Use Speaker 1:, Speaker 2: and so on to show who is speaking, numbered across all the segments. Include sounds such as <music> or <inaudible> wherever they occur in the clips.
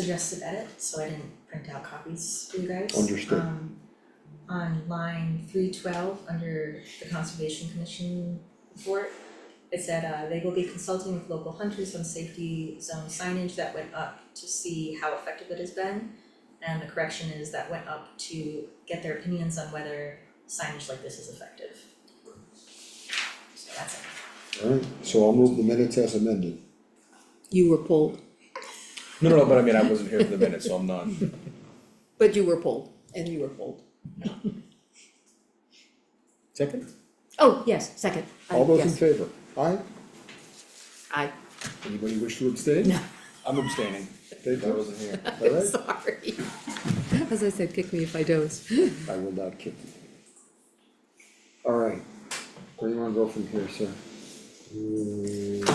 Speaker 1: suggested edit, so I didn't print out copies for you guys.
Speaker 2: Understood.
Speaker 1: Um, on line three twelve, under the Conservation Commission report, it said, uh, they will be consulting with local hunters on safety zone signage that went up to see how effective it has been. And the correction is that went up to get their opinions on whether signage like this is effective. So that's it.
Speaker 2: Alright, so I'll move the minutes as amended.
Speaker 3: You were pulled,
Speaker 4: No, no, no, but I mean, I wasn't here for the minute, so I'm not.
Speaker 3: <laughs> but you were pulled, and you were pulled.
Speaker 4: Second?
Speaker 3: Oh, yes, second. I-
Speaker 2: All those in
Speaker 3: yes,
Speaker 2: favor? Aye?
Speaker 3: I,
Speaker 2: Anybody wish to abstain?
Speaker 3: no,
Speaker 4: I'm abstaining.
Speaker 2: Thank you.
Speaker 4: wasn't here.
Speaker 2: Alright,
Speaker 3: sorry. <laughs> As I said, kick me if I doze.
Speaker 2: <laughs> I will not kick you. Alright, where do you wanna go from here, sir? We've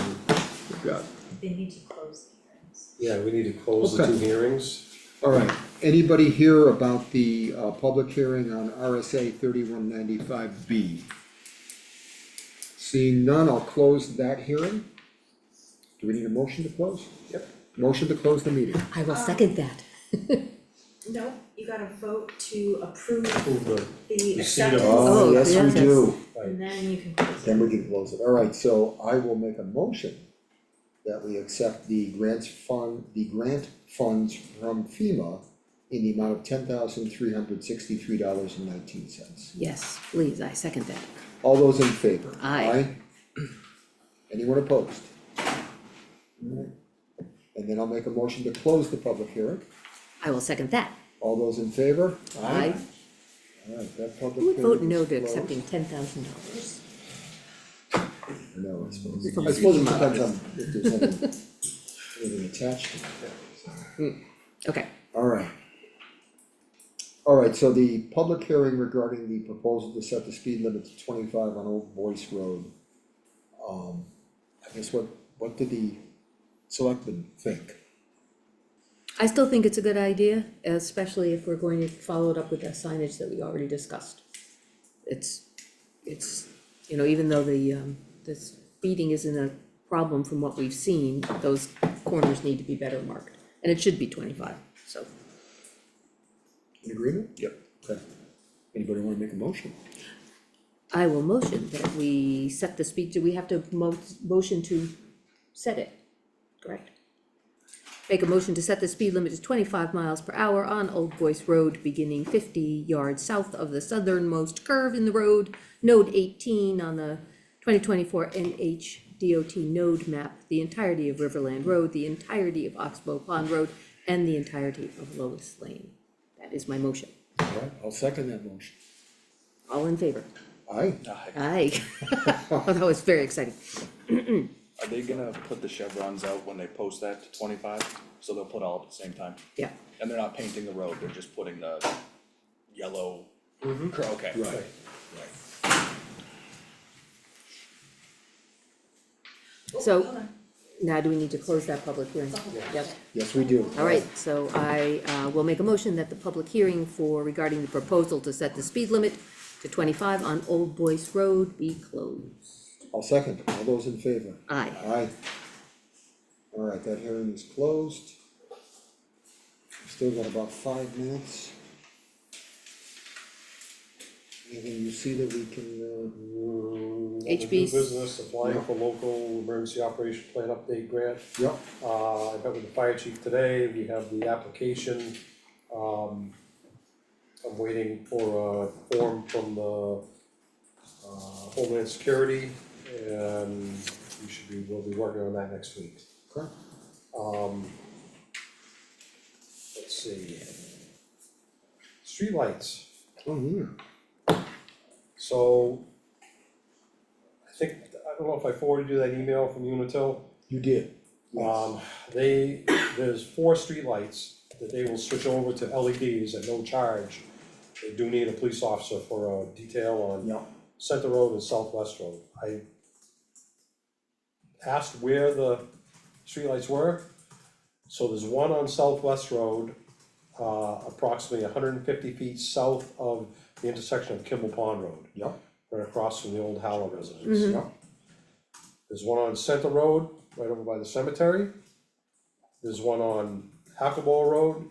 Speaker 2: got,
Speaker 1: They need to close the hearings.
Speaker 5: Mm, Yeah, we need to close the two
Speaker 2: Okay.
Speaker 5: hearings.
Speaker 2: alright, anybody here about the uh public hearing on RSA thirty-one ninety-five B? Seeing none, I'll close that hearing. Do we need a motion to close?
Speaker 5: Yep.
Speaker 2: Motion to close the meeting.
Speaker 3: I will second that.
Speaker 1: No, you gotta vote to approve
Speaker 5: Move the-
Speaker 1: the
Speaker 5: Receipt of-
Speaker 1: acceptance.
Speaker 2: ừ,
Speaker 3: Oh, yes, yes.
Speaker 1: And then you can close
Speaker 2: Then
Speaker 1: it.
Speaker 2: we can close it, alright, so I will make a motion that we accept the grants fund, the grant funds from FEMA in the amount of ten thousand three hundred sixty-three dollars and nineteen cents.
Speaker 3: Yes, please, I second that.
Speaker 2: All those in favor?
Speaker 3: Aye.
Speaker 2: Anyone opposed? Alright. And then I'll make a motion to close the public hearing,
Speaker 3: I will second that.
Speaker 2: all those in favor?
Speaker 3: I
Speaker 2: Alright, that public
Speaker 3: who
Speaker 2: hearing is
Speaker 3: would vote no to
Speaker 2: closed.
Speaker 3: accepting ten thousand dollars.
Speaker 2: No, I suppose,
Speaker 3: It's a
Speaker 2: I suppose it depends on if there's any, anything attached to it.
Speaker 3: Okay,
Speaker 2: Alright. Alright, so the public hearing regarding the proposal to set the speed limit to twenty-five on Old Voice Road. Um, I guess what, what did the selectmen think?
Speaker 3: I still think it's a good idea, especially if we're going to follow it up with the signage that we already discussed. It's, it's, you know, even though the, um, the speeding isn't a problem from what we've seen, those corners need to be better marked, and it should be twenty-five, so.
Speaker 2: In agreement?
Speaker 4: Yep.
Speaker 2: Okay. Anybody wanna make a motion?
Speaker 3: I will motion that we set the speed, do we have to mo- motion to set it, correct? Make a motion to set the speed limit to twenty-five miles per hour on Old Voice Road, beginning fifty yards south of the southernmost curve in the road, node eighteen on the twenty twenty-four NH DOT node map, the entirety of Riverland Road, the entirety of Oxbow Pond Road, and the entirety of Lois Lane. That is my motion.
Speaker 2: Alright, I'll second that motion.
Speaker 3: All in favor?
Speaker 2: Aye,
Speaker 3: Aye. Oh, <laughs> that was very exciting.
Speaker 4: Are they gonna put the chevrons out when they post that to twenty-five? So they'll put all at the same time?
Speaker 3: Yeah,
Speaker 4: And they're not painting the road, they're just putting the yellow. Cur- Okay.
Speaker 2: right,
Speaker 1: Oh,
Speaker 3: So-
Speaker 1: hold
Speaker 2: Dạ.
Speaker 1: on.
Speaker 3: now do we need to close that public hearing? Yep,
Speaker 2: yes, we do.
Speaker 3: all right, so I uh, will make a motion that the public hearing for regarding the proposal to set the speed limit to twenty-five on Old Boyce Road be closed.
Speaker 2: I'll second, all those in favor?
Speaker 3: Aye.
Speaker 2: Aye. Alright, that hearing is closed. We've Still got about five minutes. Anything you see that we can,
Speaker 5: Mm, under new
Speaker 3: HB's.
Speaker 5: Business applying for local emergency operation plan update grant.
Speaker 2: uh, yep,
Speaker 5: Uh, I met with the fire chief today, we have the application. Um, I'm waiting for a form from the uh, Homeland Security and we should be, we'll be working on that next week.
Speaker 2: correct?
Speaker 5: Um, let's see. Streetlights.
Speaker 2: Oh, yeah,
Speaker 5: So I think, I don't know if I forwarded you that email from Unitil.
Speaker 2: you did. Yes.
Speaker 5: Um, they, there's four streetlights that they will switch over to LEDs at no charge. They do need a police officer for a detail on
Speaker 2: Yep.
Speaker 5: Center Road and Southwest Road. I asked where the streetlights were. So there's one on Southwest Road, uh, approximately hundred and fifty feet south of the intersection of Kimball Pond Road.
Speaker 2: Yep.
Speaker 5: Right across from the old Howell residence.
Speaker 3: Mhm.
Speaker 2: Yep,
Speaker 5: There's one on Center Road, right over by the cemetery. There's one on Hackleboro Road